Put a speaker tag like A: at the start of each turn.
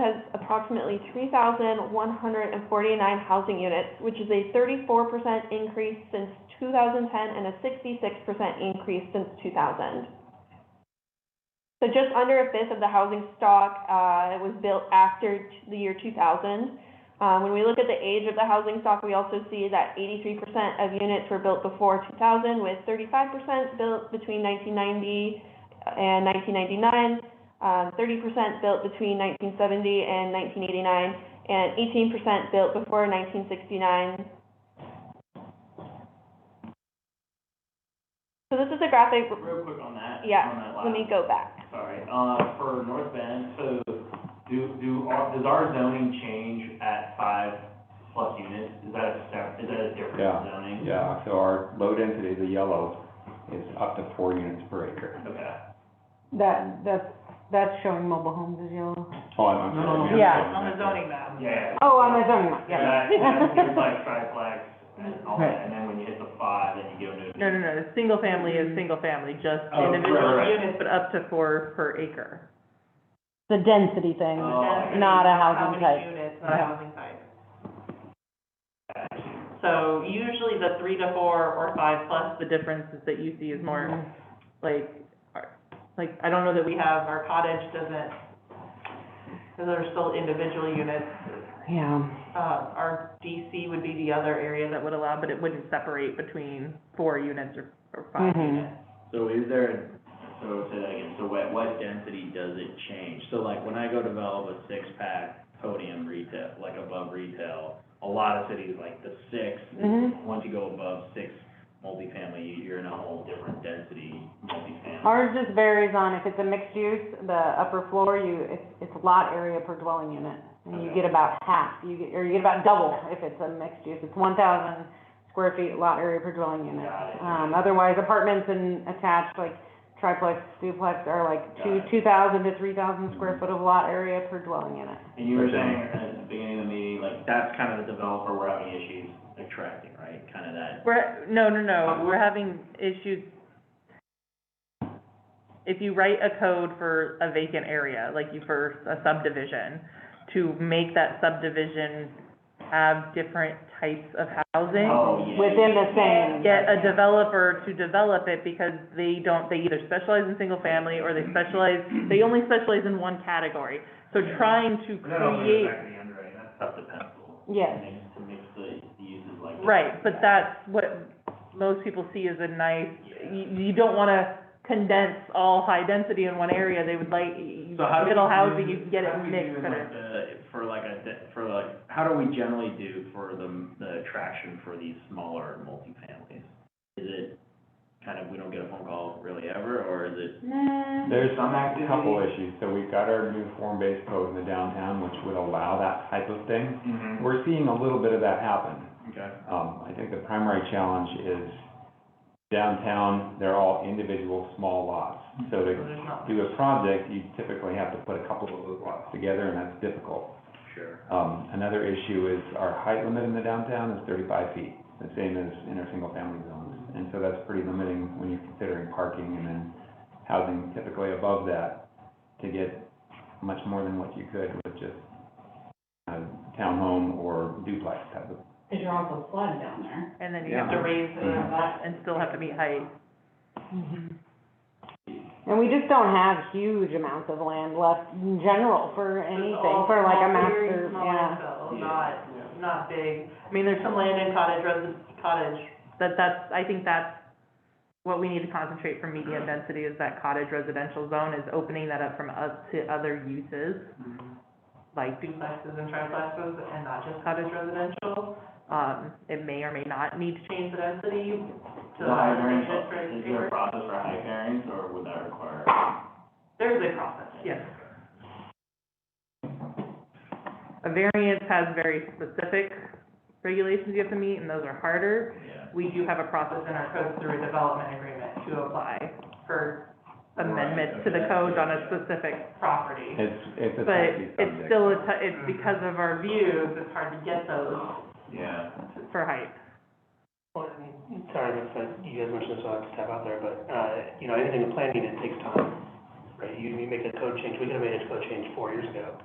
A: approximately three thousand one hundred and forty-nine housing units, which is a thirty-four percent increase since two thousand ten and a sixty-six percent increase since two thousand. So just under a fifth of the housing stock, uh, was built after t- the year two thousand. Uh, when we look at the age of the housing stock, we also see that eighty-three percent of units were built before two thousand, with thirty-five percent built between nineteen ninety and nineteen ninety-nine, um, 30% built between 1970 and 1989, and 18% built before 1969. So this is a graphic,
B: Real quick on that.
A: Yeah,
B: on that
A: let me
B: last-
A: go back.
B: Sorry, uh, for North Bend, so do, do, our- does our zoning change at five plus units? Is that a, sep- is that a
C: Yeah.
B: different zoning?
C: Yeah, so our low density, the yellow, is up to four units per acre.
B: Okay.
D: That, that's, that's showing mobile homes as yellow.
C: Oh, I'm,
B: No, no, no.
C: I'm sorry.
D: Yeah.
E: On the zoning map.
B: Yeah.
D: Oh, on the zoning,
B: So
D: yeah.
B: that- that includes, like triplex and all that, and then when you hit the five, then you go to.
E: No, no, no, the single family is single family, just
B: Oh, right,
E: individual
B: right.
E: units, but up to four per acre.
D: The density thing,
B: Oh, okay.
D: not a housing
F: How
D: type.
F: many units, not a
D: Yeah.
F: housing type. So usually the three to four or five plus,
E: The difference is that you see is more like, are- like, I don't know that
F: we
E: we have,
F: have, our cottage doesn't, because they're still individual units.
D: Yeah.
F: Uh, our DC would be the other area that
E: that would allow, but it wouldn't separate between four units or, or five
D: Mhm.
E: units.
G: So is there, so say that again, so what, what density does it change? So like, when I go develop a six-pack podium retail, like above retail, a lot of cities, like the six,
D: Mhm.
G: once you go above six multifamily, you- you're in a whole different density multifamily.
D: Ours just varies on if it's a mixed use, the upper floor, you, it's, it's lot area per dwelling unit. And you
G: Okay.
D: get about half, you get, or you get about double if it's a mixed use. It's one thousand square feet lot area per dwelling unit.
B: Got it.
D: Um, otherwise apartments and attached, like triplex, duplex are like two,
G: Got it.
D: two thousand to three thousand square foot of lot area per dwelling unit.
B: And you were saying at the beginning of the meeting, like, that's kind of the developer we're having issues.
G: Attracting, right, kind of that,
E: We're, no, no,
B: Uh-huh.
E: no, we're having issues. If you write a code for a vacant area, like you for a subdivision, to make that subdivision have different types of housing,
B: Oh, yeah.
D: Within the same.
E: get a developer to develop it because they don't, they either specialize in single family or they specialize, they only specialize in one category. So trying to
B: No, no, we're
E: create,
B: back to the underwriting, that's tough to pencil.
D: Yes.
B: To mix- To mix the the uses like. that.
E: right, but that's what most people see as a nice
B: Yeah.
E: you, you don't wanna condense all high density in one area, they would like,
G: So how do we
E: middle housing,
G: do-
E: you can get
G: how
E: it
G: do we do
E: mixed
G: in,
E: better.
G: like, the- For like a, de- for like, how do we generally do for the, the attraction for these smaller multifamilies? Is it kind of, we don't get a phone call really ever, or is it?
C: There's a couple issues, so we've got our new form-based code in the downtown, which would allow that type of thing.
B: Mhm.
C: We're seeing a little bit of that happen.
G: Okay.
C: Um, I think the primary challenge is downtown, they're all individual small lots. So to
F: there's not.
C: do a project, you typically have to put a couple of those lots together, and that's difficult.
G: Sure.
C: Um, another issue is our height limit in the downtown is thirty-five feet, the same as in our single-family zones. And so that's pretty limiting when you're considering parking and then housing typically above that to get much more than what you could with just a townhome or duplex type of
H: Because you're also flooded down there.
E: And then you have to
C: Yeah.
E: raise
H: So there's
E: the,
H: that.
E: and still have to meet height.
D: And we just don't have huge amounts of land left in general for
F: It's
D: anything,
F: all
D: for like a
F: small
D: master,
F: clearing, small
D: yeah.
F: landfill,
B: Yeah.
F: Not, not big.
E: I mean, there's
F: Some
E: some,
F: land in cottage, residence cottage,
E: that, that's, I think that's what we need to concentrate for medium density is that cottage residential zone is opening that up from up to other uses, like,
F: Mm-hmm.
E: Mm-hmm.
F: duplexes and triplexes, and not just cottage residential.
E: um, it may or may not need to change
F: Change the density to.
B: The high variance,
F: different
B: is there a
F: acre.
B: process for high variance, or would that require?
F: There's a process, yes.
E: A variance has very specific regulations you have to meet, and those are harder.
G: Yeah.
E: We do have a process
F: process
E: in
F: in our
E: our
F: code through a development agreement to apply
E: apply
F: for
E: amendment
G: Right,
E: to the
G: okay,
E: code on a
G: yeah.
E: specific,
F: property.
C: It's, it's a
E: but
C: touchy subject.
E: it's still, a t- it's because of our view
F: Views, it's hard to get those.
B: Yeah.
E: for height.
I: Well, I mean, sorry, if uh, you guys mentioned this, I'll have to step out there, but, uh, you know, anything in planning, it takes time, right? You, you make a code change, we could have made a code change four years ago,